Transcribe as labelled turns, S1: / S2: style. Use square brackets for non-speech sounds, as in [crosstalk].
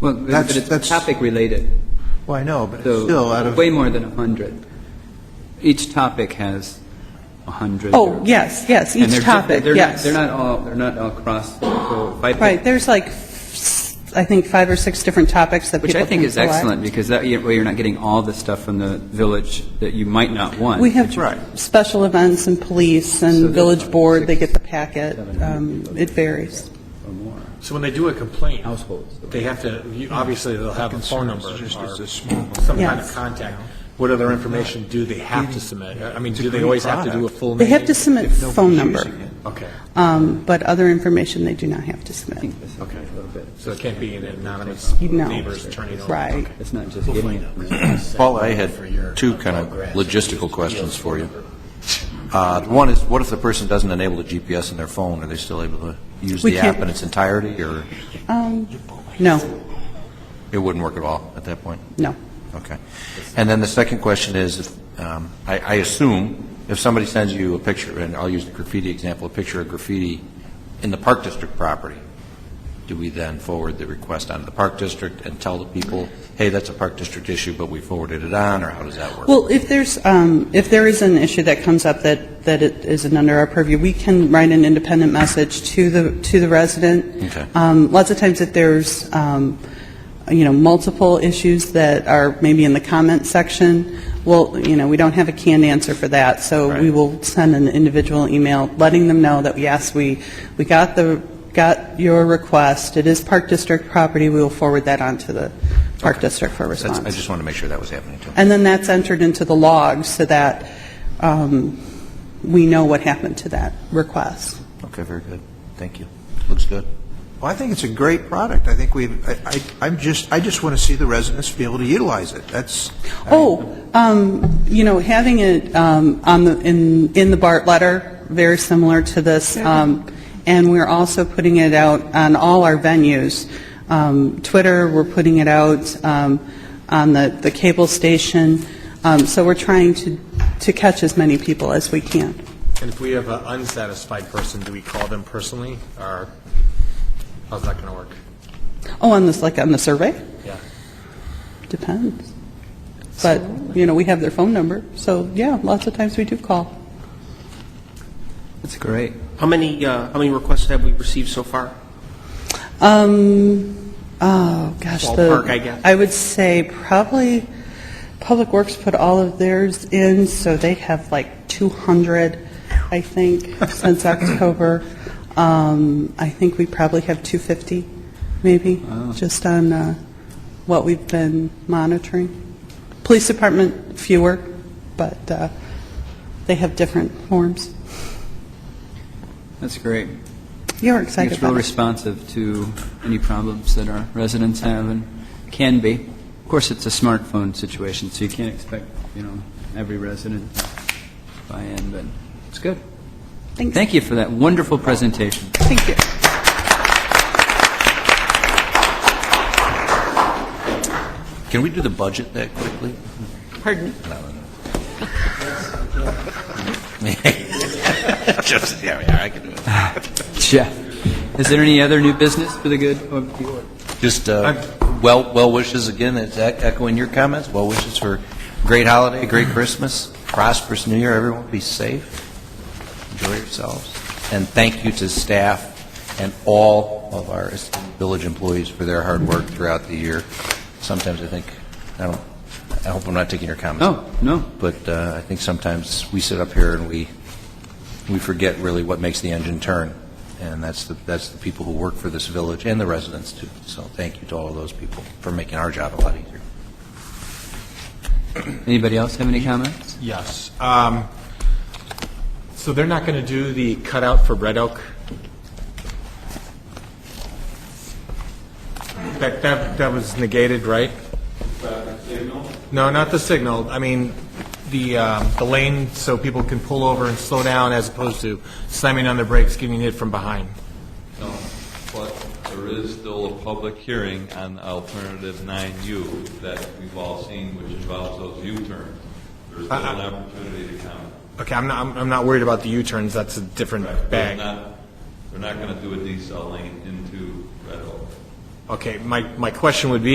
S1: Well, but
S2: That's-
S1: it's
S2: that's-
S1: topic-related,
S2: Well, I know, but it's still out
S1: so
S2: of,
S1: way more than 100. Each topic has 100.
S3: Oh, yes, yes,
S1: And they're
S3: each
S1: di-
S3: topic,
S1: they're not-
S3: yes.
S1: They're not all, they're not all cross, so if I pick-
S3: Right, there's like, s- I think, five or six different topics that people
S1: which
S3: can
S1: I think is
S3: select.
S1: excellent, because that way you're not getting all the stuff from the village that you might not want.
S3: We have
S2: Right.
S3: special events and police
S1: So there's
S3: and village
S1: like
S3: board,
S1: six,
S3: they get the packet.
S1: seven hundred
S3: Um,
S1: people.
S3: It varies.
S1: Or more.
S4: So when they do a complaint,
S1: Households.
S4: they have to, you- obviously, they'll have a phone number or some kind
S3: Yes.
S4: of contact. What other information do they have to submit? I mean, do they
S2: great
S4: always have to do a
S2: product.
S4: full
S3: They
S4: name?
S3: have to submit
S2: if nobody's
S3: phone number,
S2: using it.
S4: Okay,
S3: um, but other information they do not have to submit.
S1: Okay, a little bit.
S4: so it can't be an anonymous
S3: No.
S4: neighbor's turning over.
S3: Right.
S1: It's not just getting it.
S5: Paul, I had two kind of logistical questions for you. Uh, One is, what if the person doesn't enable the GPS in their phone? Are they still able to use
S3: We
S5: the app
S3: can't-
S5: in its entirety, or
S3: Um, No,
S5: it wouldn't work at all at that point?
S3: no.
S5: Okay. And then the second question is, if, um, I I assume if somebody sends you a picture, and I'll use the graffiti example, a picture of graffiti in the Park District property, do we then forward the request onto the Park District and tell the people, hey, that's a Park District issue, but we forwarded it on, or how does that work?
S3: Well, if there's, um, if there is an issue that comes up that, that it isn't under our purview, we can write an independent message to the, to the resident.
S5: Okay.
S3: Um, Lots of times if there's, um, you know, multiple issues that are maybe in the comment section, well, you know, we don't have a canned answer for that, so we
S5: Right.
S3: will send an individual email letting them know that, yes, we, we got the, got your request, it is Park District property, we will forward that on to the Park District for
S5: That's-
S3: response.
S5: I just want to make sure that was happening, too.
S3: And then that's entered into the log so that um, we know what happened to that request.
S5: Okay, very good. Thank you. Looks good.
S2: well, I think it's a great product. I think we've, I- I, I'm just, I just want to see the residents be able to utilize it. That's,
S3: Oh, um, you know, having it um, on the, in, in the BART letter, very similar to this, um, and we're also putting it out on all our venues. Um, Twitter, we're putting it out um, on the, the cable station, Um, so we're trying to, to catch as many people as we can.
S4: And if we have an unsatisfied person, do we call them personally, or how's that going to work?
S3: Oh, on this, like on the survey?
S4: Yeah.
S3: Depends. But, you know, we have their phone number, so, yeah, lots of times we do call.
S1: That's great.
S6: How many, uh, how many requests have we received so far?
S3: Um, oh, gosh, the...
S6: Ballpark, I guess.
S3: I would say probably, Public Works put all of theirs in, so they have like 200, I
S6: [laughs]
S3: think, since October. Um, I think we probably have 250, maybe,
S6: Oh.
S3: just on uh, what we've been monitoring. Police Department, fewer, but uh, they have different forms.
S1: That's great.
S3: You're
S1: I think
S3: excited
S1: it's real
S3: about it.
S1: responsive to any problems that our residents have and can be. Of course, it's a smartphone situation, so you can't expect, you know, every resident to buy in, but it's good.
S3: Thanks.
S1: Thank you for that wonderful presentation.
S3: Thank you.
S5: Can we do the budget that quickly?
S6: Pardon?
S5: Just, yeah, yeah, I can do it.
S1: Jeff, is there any other new business for the good of the order?
S5: Just uh, well well wishes again, it's ec- echoing your comments, well wishes for great holiday, great Christmas, prosperous New Year, everyone be safe, enjoy yourselves, and thank you to staff and all of our esteemed village employees for their hard work throughout the year. Sometimes I think, I don't, I hope I'm not taking your comments.
S1: No, no.
S5: But uh, I think sometimes we sit up here and we, we forget really what makes the engine turn, and that's the, that's the people who work for this village and the residents too. So thank you to all of those people for making our job a lot easier.
S1: Anybody else have any comments?
S4: Yes. Um, So they're not going to do the cutout for Red Oak? That, that, that was negated, right? No, not the signal. I mean, the, um, the lane so people can pull over and slow down as opposed to slamming on their brakes, getting hit from behind.
S7: No, but there is still a public hearing on alternative 9U that we've all seen, which involves those U-turns. There's still an opportunity to comment.
S4: Okay, I'm not, I'm- I'm not worried about the U-turns, that's a different
S7: They're
S4: bag.
S7: not, they're not going to do a decel lane into Red Oak.
S4: Okay, my, my question would be,